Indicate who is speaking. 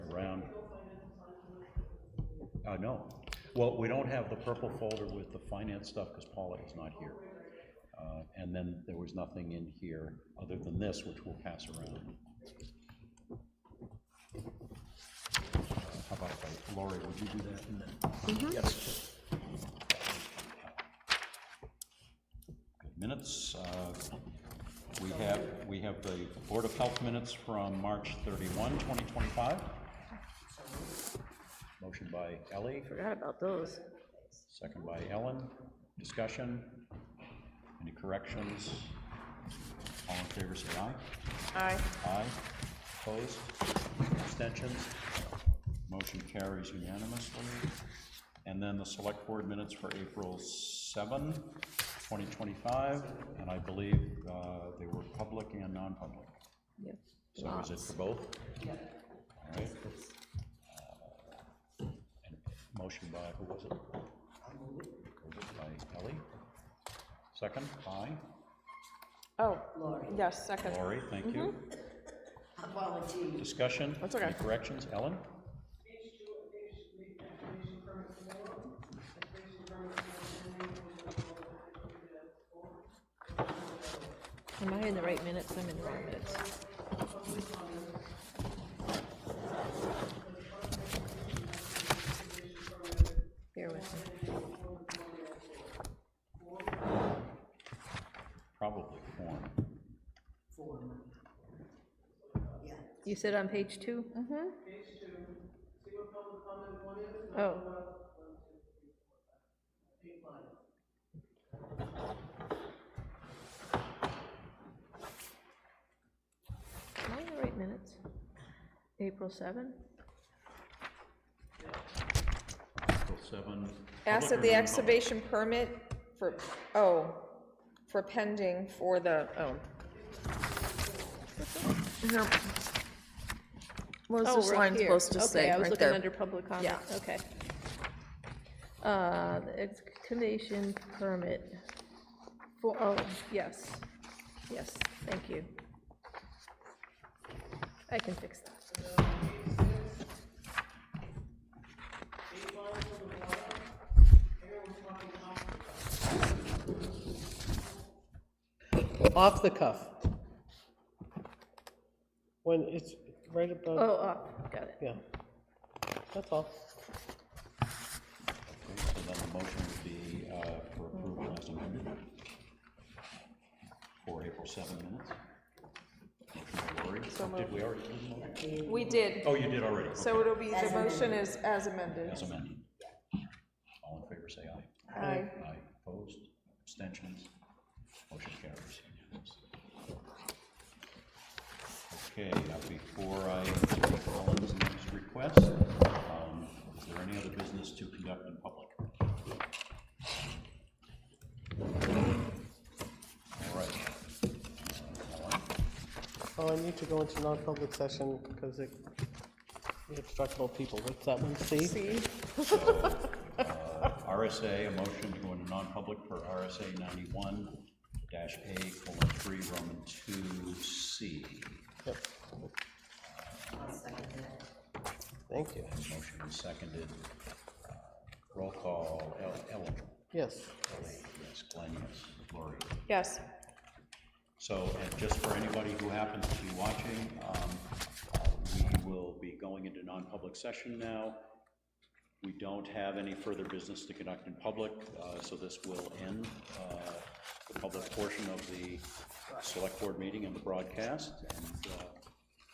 Speaker 1: Uh, no. Well, we don't have the purple folder with the finance stuff because Paula is not here. Uh, And then there was nothing in here other than this, which we'll pass around. Uh, How about, that? Lori, would you do that? and then- Yes. Good Minutes, uh, we have, we have the Board of Health minutes from March 31, 2025. Motion by Ellie,
Speaker 2: Forgot about those.
Speaker 1: Second by Ellen. Discussion? Any corrections? All in favor, say aye.
Speaker 2: Aye.
Speaker 1: Aye. Opposed? Abstentions? Motion carries unanimously. And then the select board minutes for April 7, 2025, and I believe uh, they were public and non-public.
Speaker 2: Yep.
Speaker 1: So is it for both? All right. Uh, and Motion by, who was it? Was it By Ellie? Second, by
Speaker 2: Oh, yes, second.
Speaker 1: Lori, thank you. Discussion?
Speaker 2: That's okay.
Speaker 1: Any corrections? Ellen?
Speaker 2: Am I in the right minutes? I'm in the right minutes. Bear with me.
Speaker 1: Probably form.
Speaker 2: You said on page 2 Mm-hmm. Oh. Am I in the right minutes? April 7?
Speaker 1: Article 7.
Speaker 3: Asked that
Speaker 1: Public
Speaker 3: the
Speaker 1: or
Speaker 3: excavation permit for, oh, for pending for the, oh. No. What was
Speaker 2: Oh,
Speaker 3: this
Speaker 2: right
Speaker 3: line
Speaker 2: here.
Speaker 3: supposed to say,
Speaker 2: Okay, I was
Speaker 3: right
Speaker 2: looking
Speaker 3: there?
Speaker 2: under public comment,
Speaker 3: Yeah.
Speaker 2: okay. Uh, the excavation permit for, oh, yes, yes, thank you. I can fix that.
Speaker 4: Off the cuff. When it's right above,
Speaker 2: Oh, uh, got it.
Speaker 4: yeah. That's all.
Speaker 1: Okay, So then the motion would be uh, for approval as amended for April 7 minutes. Motion by Lori. Did we already do the motion?
Speaker 3: We did,
Speaker 1: Oh, you did already.
Speaker 3: so it'll be, the motion is as amended.
Speaker 1: As amended. All in favor, say aye.
Speaker 3: Aye.
Speaker 1: Aye, opposed, abstentions, motion carries. Okay, now before I take Ellen's next request, um, is there any other business to conduct in public? All right. Ellen,
Speaker 4: Oh, I need to go into non-public session because it, we have to talk about people. What's that one, C?
Speaker 3: See,
Speaker 1: RSA, a motion to go into non-public per RSA ninety-one dash A colon three, Roman two C.
Speaker 4: Yep. Thank you.
Speaker 1: Motion is seconded. Uh, Roll call, El- Ellen,
Speaker 4: Yes.
Speaker 1: yes, Glenn, yes, Lori.
Speaker 3: yes,
Speaker 1: So, and just for anybody who happens to be watching, um, uh, we will be going into non-public session now. We don't have any further business to conduct in public, uh, so this will end uh, the public portion of the select board meeting and the broadcast. And uh,